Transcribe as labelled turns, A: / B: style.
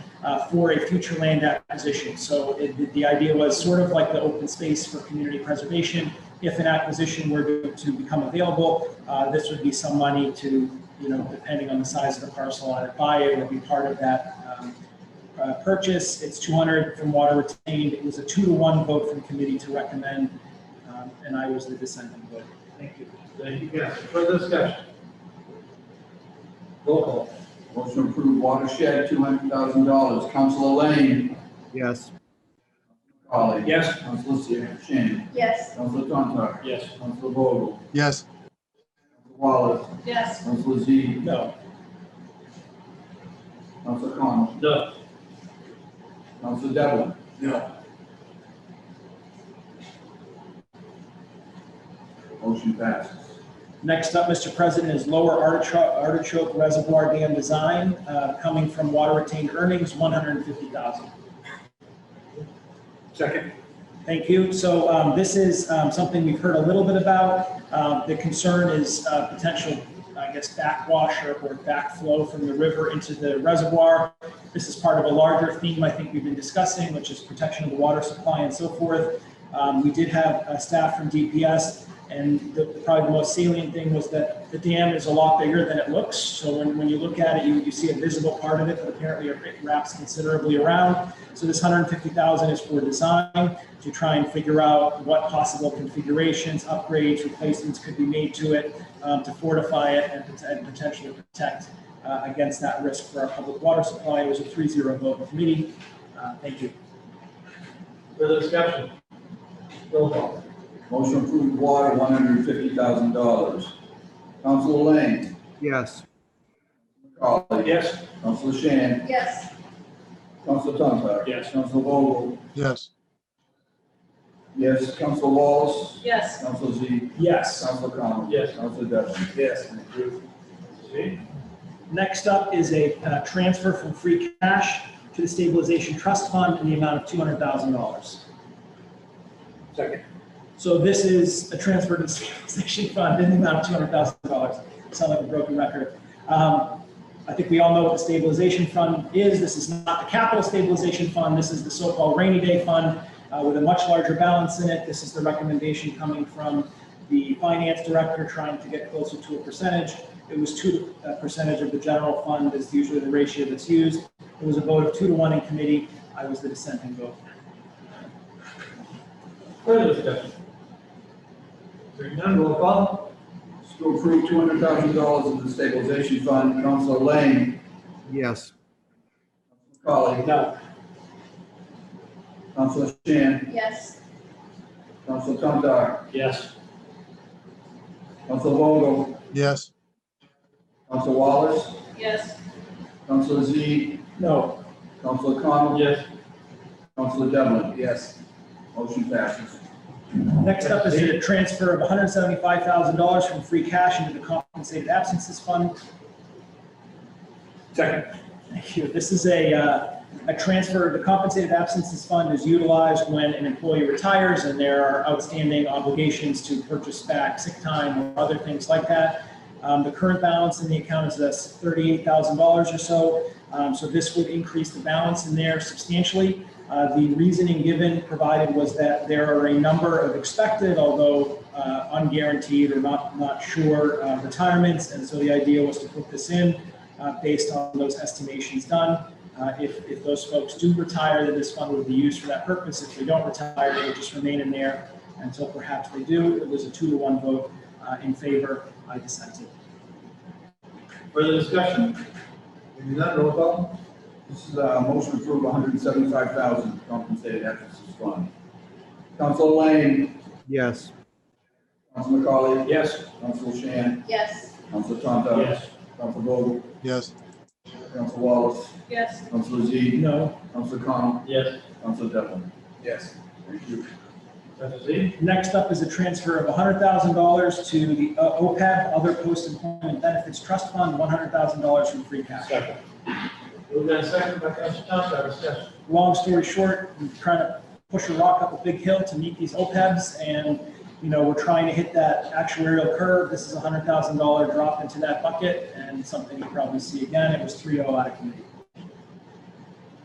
A: uh, for a future land acquisition. So it- the idea was sort of like the open space for community preservation. If an acquisition were to- to become available, uh, this would be some money to, you know, depending on the size of the parcel I'd buy, it would be part of that um, uh, purchase. It's 200 from water retained. It was a two to one vote from committee to recommend, um, and I was the dissenting vote.
B: Thank you. Thank you, guys. Further discussion? Roll call.
C: Motion to approve watershed, two hundred thousand dollars. Counselor Lane.
D: yes,
C: Collie.
B: Yes.
C: Counselor Shan.
E: yes,
C: Counselor Tontar.
B: Yes.
C: Counselor Vogel.
D: yes,
C: Counselor Wallace.
E: yes,
C: Counselor Z.
A: No,
C: Counselor Connell.
B: No.
C: Counselor Devlin.
B: No.
C: Motion passes.
A: Next up, Mr. President, is Lower Artichoke Artichoke Reservoir Dam Design, uh, coming from water retained earnings, 150,000.
B: Second.
A: Thank you. So um, this is um, something we've heard a little bit about. Um, The concern is uh, potential, I guess, backwash or or backflow from the river into the reservoir. This is part of a larger theme I think we've been discussing, which is protection of the water supply and so forth. Um, We did have uh, staff from DPS, and the- probably the most salient thing was that the dam is a lot bigger than it looks. So when when you look at it, you you see a visible part of it, but apparently it wraps considerably around. So this 150,000 is for design to try and figure out what possible configurations, upgrades, replacements could be made to it um, to fortify it and pot- and potentially protect uh, against that risk for our public water supply. It was a 3-0 vote in committee. Uh, Thank you.
B: Further discussion? Roll call.
C: Motion to approve water, one hundred fifty thousand dollars. Counselor Lane.
D: yes,
C: Collie.
B: Yes.
C: Counselor Shan.
E: yes,
C: Counselor Tontar.
B: Yes.
C: Counselor Vogel.
D: yes,
C: Yes. Counselor Wallace.
E: yes,
C: Counselor Z.
A: Yes.
C: Counselor Connell.
B: Yes.
C: Counselor Devlin.
B: Yes. See?
A: Next up is a uh, transfer from free cash to the stabilization trust fund in the amount of $200,000.
B: Second.
A: So this is a transfer to the stabilization fund in the amount of two hundred thousand dollars. Sound like a broken record. Um, I think we all know what the stabilization fund is. This is not the capital stabilization fund. This is the so-called rainy day fund uh, with a much larger balance in it. This is the recommendation coming from the finance director trying to get closer to a percentage. It was two uh, percentage of the general fund is usually the ratio that's used. It was a vote of two to one in committee. I was the dissenting vote.
B: Further discussion? Hearing none, roll call.
C: To approve two hundred thousand dollars of the stabilization fund, Counselor Lane,
D: yes,
C: Colley,
B: No.
C: Counselor Shan,
E: yes,
C: Counselor Tontar,
B: Yes.
C: Counselor Vogel,
D: yes,
C: Counselor Wallace,
E: yes,
C: Counselor Z,
A: No.
C: Counselor Connell,
B: Yes.
C: Counselor Devlin. Yes. Motion passes.
A: Next up is a transfer of $175,000 from free cash into the compensated absences fund.
B: Second.
A: Thank you. This is a, uh, a transfer, the compensated absences fund is utilized when an employee retires and there are outstanding obligations to purchase back sick time or other things like that. Um, The current balance in the account is this $38,000 or so. Um, So this would increase the balance in there substantially. Uh, The reasoning given provided was that there are a number of expected, although uh, unguaranteed or not, not sure uh, retirements. And so the idea was to put this in uh, based on those estimations done. Uh, If, if those folks do retire, then this fund would be used for that purpose. If they don't retire, they would just remain in there until perhaps they do. It was a two to one vote uh, in favor. I dissented.
B: Further discussion? Hearing none, roll call.
C: This is a motion to approve one hundred seventy-five thousand compensated absences fund. Counselor Lane,
D: yes,
C: Counselor Colley,
B: Yes.
C: Counselor Shan,
E: yes,
C: Counselor Tontar, Counselor Vogel,
D: yes,
C: Counselor Wallace,
E: yes,
C: Counselor Z,
A: No.
C: Counselor Connell,
B: Yes.
C: Counselor Devlin.
B: Yes.
C: Thank you.
B: Dr. Z?
A: Next up is a transfer of $100,000 to the uh, OPEB, Other Post-Employment Benefits Trust Fund, $100,000 from free cash.
B: Second. Moved and second by Council Thompson, discussion.
A: Long story short, we're trying to push a rock up a big hill to meet these OPEBs, and, you know, we're trying to hit that actuarial curve. This is a $100,000 drop into that bucket, and something you'll probably see again. It was 3-0 out of committee.